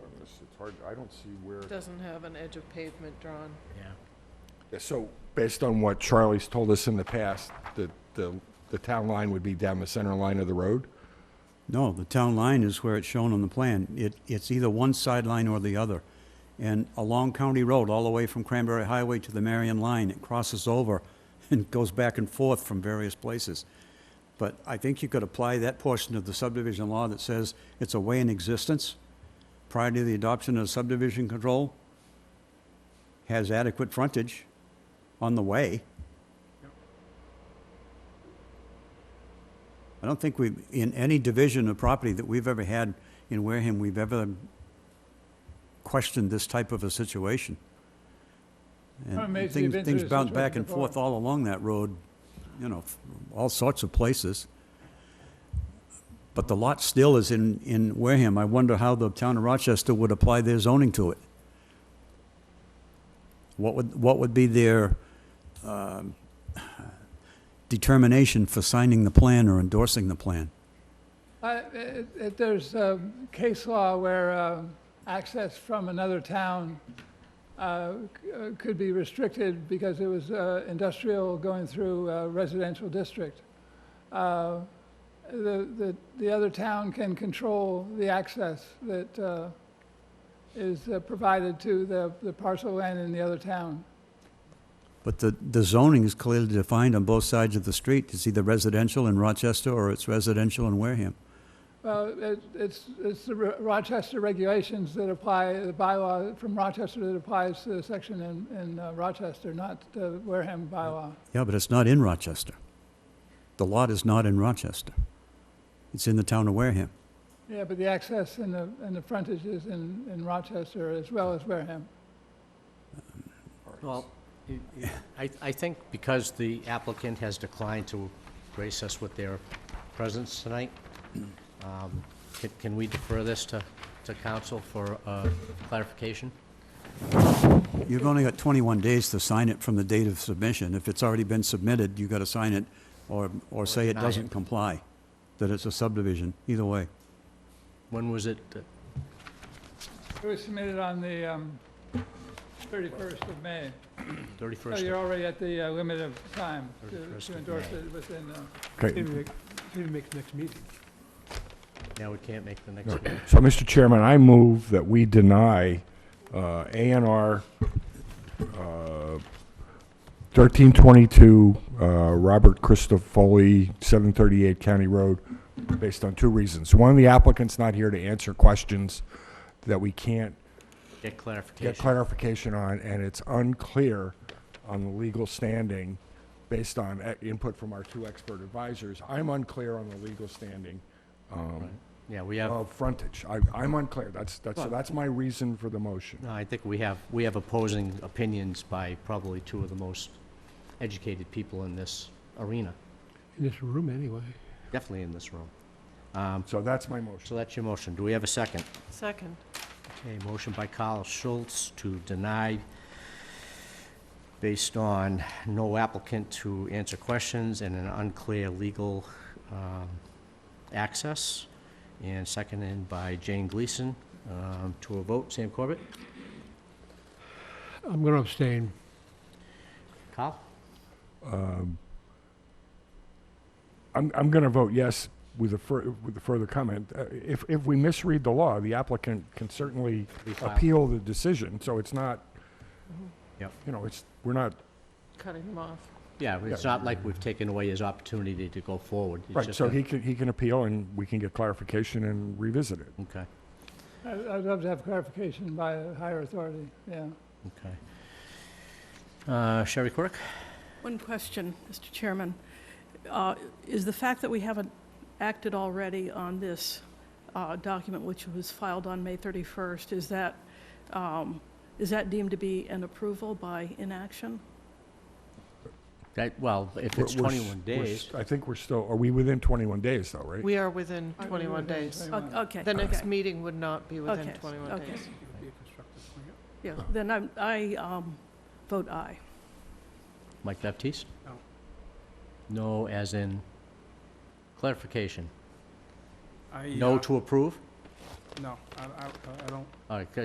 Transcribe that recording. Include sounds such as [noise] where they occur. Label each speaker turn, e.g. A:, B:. A: hard, I don't see where,
B: Doesn't have an edge of pavement drawn.
C: Yeah.
A: Yeah, so based on what Charlie's told us in the past, the, the, the town line would be down the center line of the road?
D: No, the town line is where it's shown on the plan. It, it's either one sideline or the other. And along County Road, all the way from Cranberry Highway to the Marion Line, it crosses over [laughs] and goes back and forth from various places. But I think you could apply that portion of the subdivision law that says it's a way in existence prior to the adoption of subdivision control, has adequate frontage on the way. I don't think we've, in any division of property that we've ever had in Wareham, we've ever questioned this type of a situation. And
C: I'm amazed
D: things-
C: you've been through
D: Things
C: this
D: bounce
C: situation
D: back and forth
C: before.
D: all along that road, you know, f- all sorts of places. But the lot still is in, in Wareham. I wonder how the town of Rochester would apply their zoning to it. What would, what would be their um, determination for signing the plan or endorsing the plan?
E: I- it- it- Uh, There's um, case law where um, access from another town uh, c- uh, could be restricted because it was uh, industrial going through a residential district. Uh, The the the other town can control the access that uh, is uh, provided to the the parcel land in the other town.
D: But the, the zoning is clearly defined on both sides of the street. It's either residential in Rochester or it's residential in Wareham.
E: Well, it- it's, it's the Ro- Rochester regulations that apply, the bylaw from Rochester that applies to the section in, in uh, Rochester, not the Wareham bylaw.
D: Yeah, but it's not in Rochester. The lot is not in Rochester. It's in the town of Wareham.
E: Yeah, but the access and the, and the frontage is in, in Rochester as well as Wareham.
C: Well, it- it- I, I think because the applicant has declined to grace us with their presence tonight, um, can- can we defer this to, to council for uh, clarification?
D: You've only got 21 days to sign it from the date of submission. If it's already been submitted, you've got to sign it or, or say it
C: deny it.
D: doesn't comply, that it's a subdivision, either way.
C: When was it, uh,
E: It was submitted on the um, 31st of May. So
F: Oh,
C: 31st?
E: you're already at the uh, limit of time to-
C: 31st
E: to
C: of
E: endorse
C: May.
E: it within, uh,
A: Okay,
F: Didn't make, didn't make the next meeting.
C: Now we can't make the next meeting.
A: so Mr. Chairman, I move that we deny, uh, A and R, uh, thirteen twenty-two, uh, Robert Christofoli, seven thirty-eight County Road, based on two reasons. One, the applicant's not here to answer questions that we can't
C: Get
A: get
C: clarification.
A: clarification on, and it's unclear on the legal standing based on uh, input from our two expert advisors. I'm unclear on the legal standing um,
C: Yeah, we have,
A: of frontage. I, I'm unclear. That's, that's, so that's my reason for the motion.
C: no, I think we have, we have opposing opinions by probably two of the most educated people in this arena,
F: In this room, anyway.
C: definitely in this room.
A: So that's my motion.
C: So that's your motion. Do we have a second?
B: Second.
C: Okay, motion by Carl Schultz to deny based on no applicant to answer questions and an unclear legal um, access, and seconded by Jane Gleason. Um, To a vote, Sam Corbett?
F: I'm going to abstain.
C: Carl?
A: I'm, I'm going to vote yes with a, fur- with a further comment. Uh, If, if we misread the law, the applicant can certainly
C: Refile.
A: appeal the decision, so it's not,
C: Mm-hmm. Yep.
A: you know, it's, we're not,
B: Cutting him off.
C: Yeah, it's
A: Yeah.
C: not like we've taken away his opportunity to go forward. It's
A: right,
C: just
A: so
C: a-
A: he can, he can appeal and we can get clarification and revisit it.
C: Okay,
E: I- I'd love to have clarification by a higher authority, yeah.
C: okay. Uh, Sherry Quirk?
G: One question, Mr. Chairman. Uh, Is the fact that we haven't acted already on this uh, document, which was filed on May 31st, is that, um, is that deemed to be an approval by inaction?
C: That, well, if
A: We're-
C: it's
A: we're s-
C: 21
A: we're
C: days.
A: s- I think we're still, are we within 21 days though, right?
B: We are within
E: Aren't we
B: 21
E: within
B: days.
E: 21?
G: O- Okay.
B: The next
G: okay.
B: meeting would not be within
G: Okay,
B: 21
G: okay.
B: days.
G: Yeah, then I'm- I um, vote aye.
C: Mike Baptiste? No. No, as in clarification?
H: I,
C: No
H: uh,
F: uh,
C: to approve?
H: No, I, I, I don't
C: All right, good.